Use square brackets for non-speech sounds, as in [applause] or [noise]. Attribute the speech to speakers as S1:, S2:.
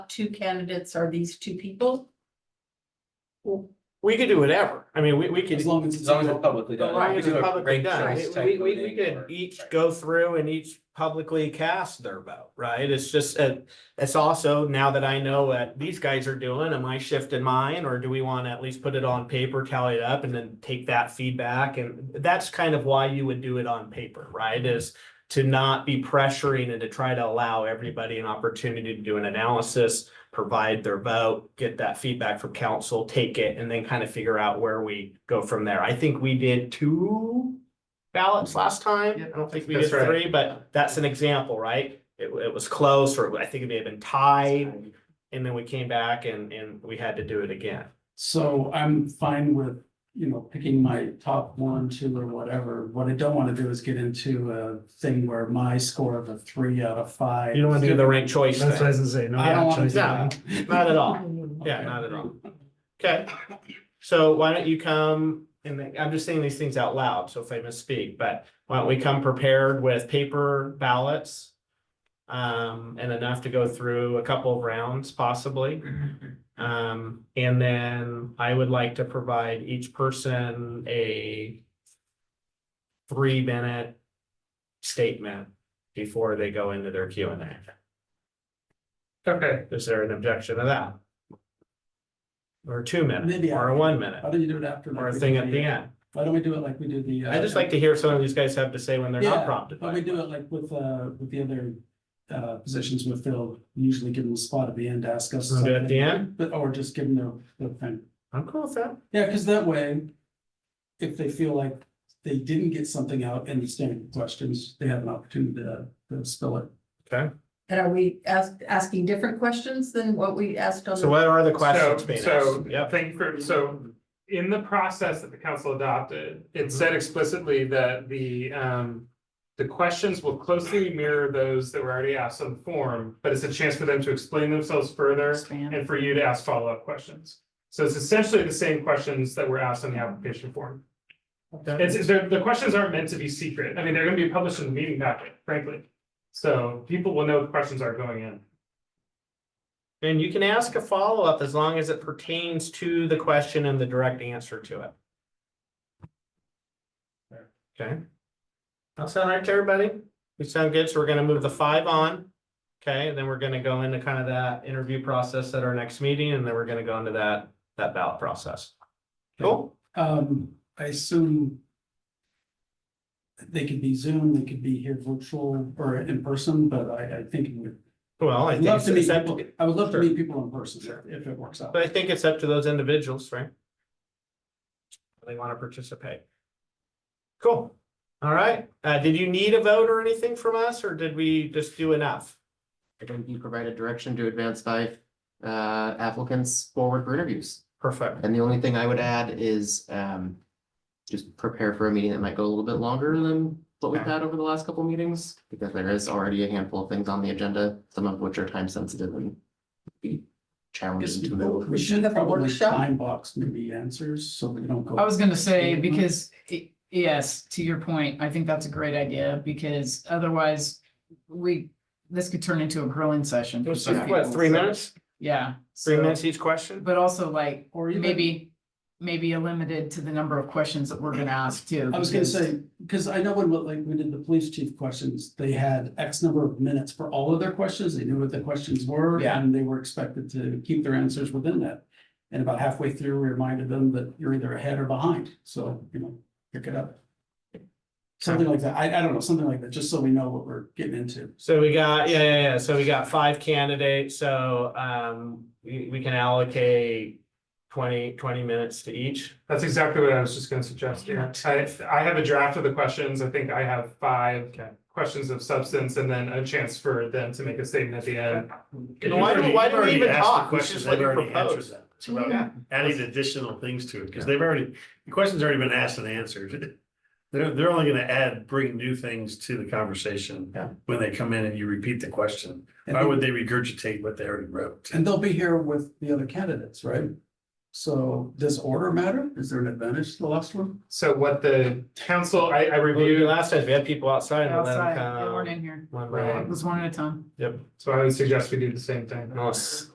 S1: two candidates are these two people?
S2: We could do whatever. I mean, we, we could.
S3: As long as. it's publicly
S2: As long as
S3: We
S2: it's
S3: could do a
S2: publicly
S3: rank
S2: done,
S3: choice
S2: we,
S3: type
S2: we, we- we
S3: voting
S2: could
S3: or-
S2: each
S3: right.
S2: go through and each publicly cast their vote, right? It's just, uh, it's also now that I know what these guys are doing, am I shifting mine? Or do we want to at least put it on paper, tally it up and then take that feedback? And that's kind of why you would do it on paper, right? Is to not be pressuring and to try to allow everybody an opportunity to do an analysis, provide their vote, get that feedback from council, take it, and then kind of figure out where we go from there. I think we did two ballots last time. I don't think we did
S3: That's right.
S2: three, but that's an example, right? It, it was close, or I think it may have been tied, and then we came back and, and we had to do it again.
S4: So I'm fine with, you know, picking my top one, two, or whatever. What I don't want to do is get into a thing where my score of a three out of five.
S2: You don't want to do the ranked choice
S5: That's what I
S2: thing,
S5: was gonna say. no
S4: I don't
S5: ranked
S4: want to
S5: choices.
S4: do that.
S2: not at all. Yeah, not at all. Okay, so why don't you come, and then- I'm just saying these things out loud, so if I misspeak, but why don't we come prepared with paper ballots? Um, and enough to go through a couple of rounds possibly. Um, and then I would like to provide each person a three minute statement before they go into their Q and A.
S3: Okay.
S2: Is there an objection to that? Or two minutes,
S4: Maybe I-
S2: or a one
S4: How
S2: minute,
S4: do you do it after?
S2: or a thing at the end.
S4: Why don't we do it like we do the? uh,
S2: I just like to hear some of these guys have to say when they're
S4: Yeah,
S2: not prompted.
S4: Why don't
S2: by
S4: we
S2: it.
S4: do it like with, uh, with the other, uh, positions we filled, usually give them a spot at the end, ask us.
S2: Wanna do it at the
S4: something,
S2: end?
S4: But, or just give them their, their thing.
S2: I'm cool with that.
S4: Yeah, because that way, if they feel like they didn't get something out in the standard questions, they have an opportunity to, to spill it.
S1: And are we ask, asking different questions than what we asked on?
S2: So what are the
S6: So,
S2: questions being
S6: so,
S2: asked? Yep,
S6: thank you for, so, in the process that the council adopted,
S2: Mm-hmm.
S6: it said explicitly that the, um. The questions will closely mirror those that were already asked on the form, but it's a chance for them to explain themselves further and for you to ask follow-up questions. So it's essentially the same questions that were asked on the application form.
S2: Okay.
S6: It's, it's- the, the questions aren't meant to be secret, I mean, they're gonna be published in the meeting packet, frankly. So people will know the questions are going in.
S2: And you can ask a follow-up as long as it pertains to the question and the direct answer to it. Okay. That sound all right to everybody? We sound good, so we're gonna move the five on. Okay, and then we're gonna go into kind of that interview process at our next meeting, and then we're gonna go into that, that ballot process. Cool?
S4: Um, I assume they could be Zoom, they could be here virtual or in person, but I, I think it would,
S2: Well, I
S4: I'd
S2: think
S4: love
S2: it's
S4: to meet
S2: it's up
S4: people,
S2: to,
S4: I would love to
S2: Sure.
S4: meet people in person if it works out.
S2: but I think it's up to those individuals, right? If They wanna participate. Cool. All right, uh, did you need a vote or anything from us, or did we just do enough?
S7: I think you provided direction to advance five uh applicants forward for interviews.
S2: Perfect.
S7: And the only thing I would add is um. Just prepare for a meeting that might go a little bit longer than what we've
S2: Okay.
S7: had over the last couple meetings, because there is already a handful of things on the agenda, some of which are time sensitive and. Be challenging to move.
S4: We should
S1: Have a
S4: probably
S1: workshop?
S4: time box maybe answers, so we don't go.
S8: I was gonna say,
S4: Mhm.
S8: because, i- yes, to your point, I think that's a great idea, because otherwise we, this could turn into a grilling session. for some
S2: What,
S8: people,
S2: three
S8: so-
S2: minutes?
S8: Yeah.
S2: Three
S8: so-
S2: minutes each question?
S8: But also like,
S4: Or even-
S8: maybe, maybe limited to the number of questions that we're gonna ask too.
S4: I was gonna
S8: because-
S4: say, because I know when, like, we did the police chief questions, they had X number of minutes for all of their questions, they knew what the questions were.
S8: Yeah.
S4: And they were expected to keep their answers within that. And about halfway through, we reminded them that you're either ahead or behind, so, you know, pick it up. Something like that, I, I don't know, something like that, just so we know what we're getting into.
S2: So we got, yeah, yeah, yeah, so we got five candidates, so, um, we, we can allocate 20 20 minutes to each.
S6: That's exactly what I was just gonna suggest, yeah. I, I have a draft of the questions. I think I have five
S2: Okay.
S6: questions of substance and then a chance for them to make a statement at the end.
S2: And why do- why do we
S5: Already
S2: even
S5: asked the
S2: talk? We
S5: question,
S2: should let
S5: they've
S2: you
S5: already
S2: propose.
S5: answered that. It's about Adding additional things to it, because they've already, the question's already been asked and answered. [laughs] They're, they're only gonna add, bring new things to the conversation
S2: Yeah.
S5: when they come in and you repeat the question.
S4: And
S5: Why
S4: they-
S5: would they regurgitate what they already wrote?
S4: And they'll be here with the other candidates, right? So does order matter? Is there an advantage to the last one?
S6: So what the council, I, I
S2: Well, we did
S6: reviewed,
S2: Last time, we had people outside and let them
S8: Outside, they weren't
S2: come.
S8: in here.
S2: One
S8: It
S2: round.
S8: was one at a time.
S2: Yep.
S6: so I would suggest we do the same thing.
S2: Unless